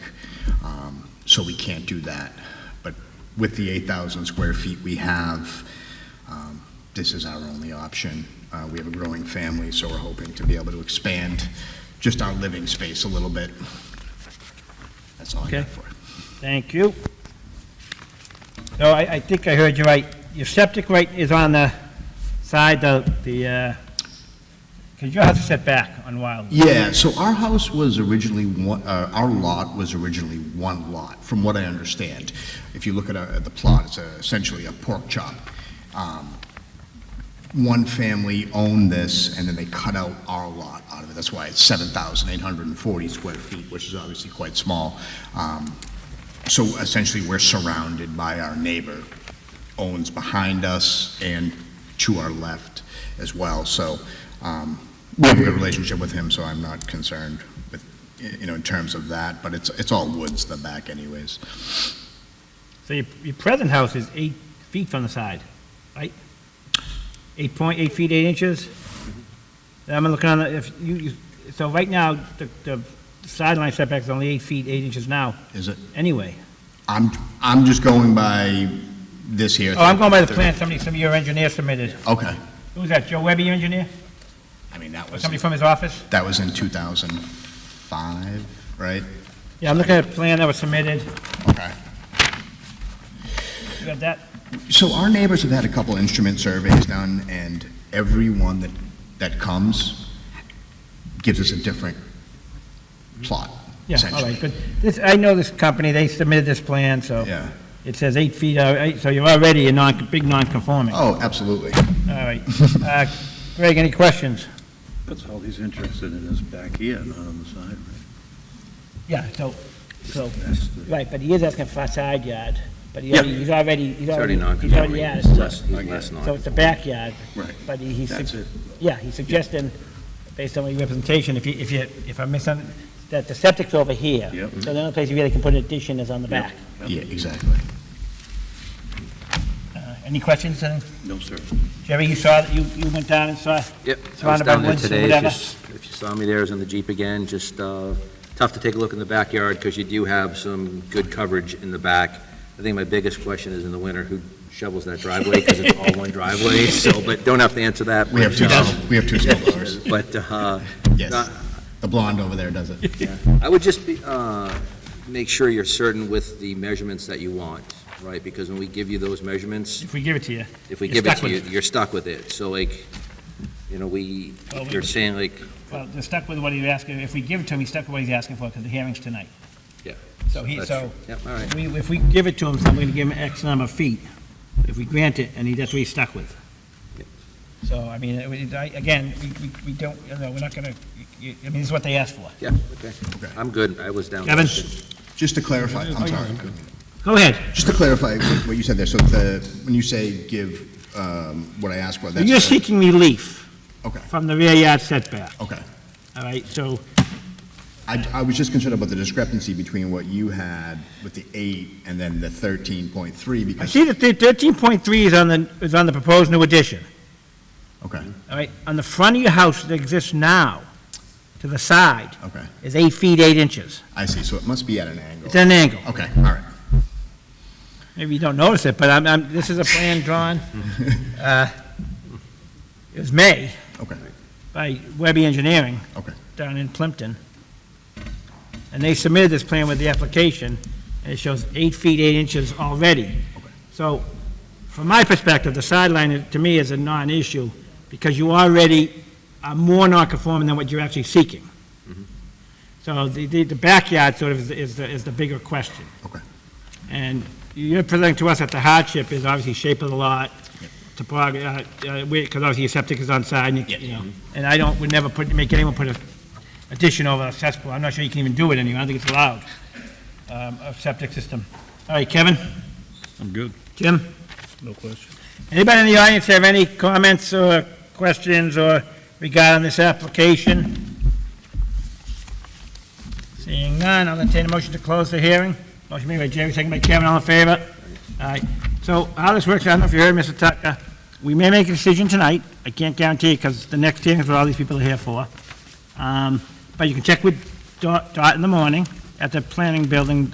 Um, so we can't do that. But with the 8,000 square feet we have, um, this is our only option. Uh, We have a growing family, so we're hoping to be able to expand just our living space a little bit. That's all I Okay. got for it. Thank you. So I, I think I heard you right. Your septic right is on the side of the, uh, because your house is set back on Wild. Yeah, so our house was originally one, uh, our lot was originally one lot, from what I understand. If you look at, uh, the plot, it's uh, essentially a pork chop. Um, One family owned this, and then they cut out our lot out of it. That's why it's 7,840 square feet, which is obviously quite small. Um, So essentially, we're surrounded by our neighbor, owns behind us and to our left as well. So um, we have a good relationship with him, so I'm not concerned with, you know, in terms of that, but it's, it's all woods, the back anyways. So your, your present house is eight feet from the side, right? Eight point, eight feet, eight inches? I'm looking on, the if you, you- so right now, the, the sideline setback is only eight feet, eight inches now, Is it, anyway. I'm, I'm just going by this here. Oh, I'm going by the plan somebody, some of your engineer submitted. Okay. Who's that, Joe Webby, your engineer? I mean, that Or was, somebody from his office? that was in 2005, right? Yeah, I'm looking at a plan that was submitted. Okay. You got that? So our neighbors have had a couple instrument surveys done, and everyone that, that comes gives us a different plot, Yeah, all essentially. right, but this, I know this company, they submitted this plan, so. Yeah. It says eight feet, uh, eight- so you're already a non, big non-conforming. All Oh, absolutely. right. Uh, Greg, any questions? That's all he's interested in is back here, not on the side, right? Yeah, so, so, That's the- right, but he is asking for a side yard, but he Yeah. already, he's already, he's It's already already. he's non-conforming. already He's added. less, he's less So it's a non-conforming. backyard. Right. But he- he's. That's it. Yeah, he's suggesting, based on your representation, if you, if you, if I miss something, that the septic's over here. Yep. So the only place you really can put an addition is on the back. Yeah, exactly. Uh, Any questions, then? No, sir. Jerry, you saw, that you, you went down and saw? Yep, I was Surrounded by down there woods or today, if whatever. you s- if you saw me there, I was in the Jeep again, just uh, tough to take a look in the backyard, because you do have some good coverage in the back. I think my biggest question is in the winter, who shovels that driveway, because it's all one driveway, so, but don't have to answer that. We have two, but, um, we have two snowblowers. But, uh, Yes. The blonde over there does it. I would just be, uh, make sure you're certain with the measurements that you want, right? Because when we give you those measurements, If we give it to you. if we You're give it stuck to you, with you're stuck with it. So like, you know, we, Well, we- you're saying like, Well, they're stuck with what he's asking, if we give it to him, he's stuck with what he's asking for, because the hearing's tonight. yeah. So he, that's- so, Yeah, all right. we, if we give it to him, so I'm gonna give him X number of feet. If we grant it, and he, that's what he's stuck with. Yep. So, I mean, it- it- I- again, we, we, we don't, you know, we're not gonna, you- I mean, this is what they asked for. Yeah, okay. I'm good. I was down. Kevin? Just to clarify, I'm sorry. Go ahead. Just to clarify what what you said there, so the, when you say give, um, what I asked for, that's. You're the- seeking relief Okay, from the rear yard setback, okay. all right? So, I, I was just concerned about the discrepancy between what you had with the eight and then the 13.3 I because, see that the thirteen point three is on the, is on the proposed new addition. okay, All right, on the front of your house that exists now, to the side, okay. is eight feet, eight inches. I see, so it must be at an angle. It's at an angle. Okay, all right. Maybe you don't notice it, but I'm, I'm, this is a plan drawn, uh, it was May, Okay, by Webby Engineering okay. down in Plimpton. And they submitted this plan with the application, and it shows eight feet, eight inches already. So, from my perspective, the sideline, is- to me, is a non-issue, because you already are more non-conforming than what you're actually seeking. Mm-hmm. So the, the the backyard sort of is, the- is the, is the bigger question. Okay. And you're presenting to us that the hardship is obviously shape of the lot, topography, uh, because obviously your septic is on side, and you- you know, and I don't, would never put, make anyone put a addition over a cesspool, I'm not sure you can even do it anymore, I don't think it's allowed, um, a septic system. All right, Kevin? I'm good. Jim? No question. Anybody in the audience have any comments or questions or regarding this application? Seeing none, I'll entertain a motion to close the hearing. Motion made by Jerry, second by Kevin, all in favor? All right, so how this works, I don't know if you heard, Mr. Tucker, we may make a decision tonight, I can't guarantee, because the next hearing is what all these people are here for. Um, But you can check with Dot Dot in the morning at the planning building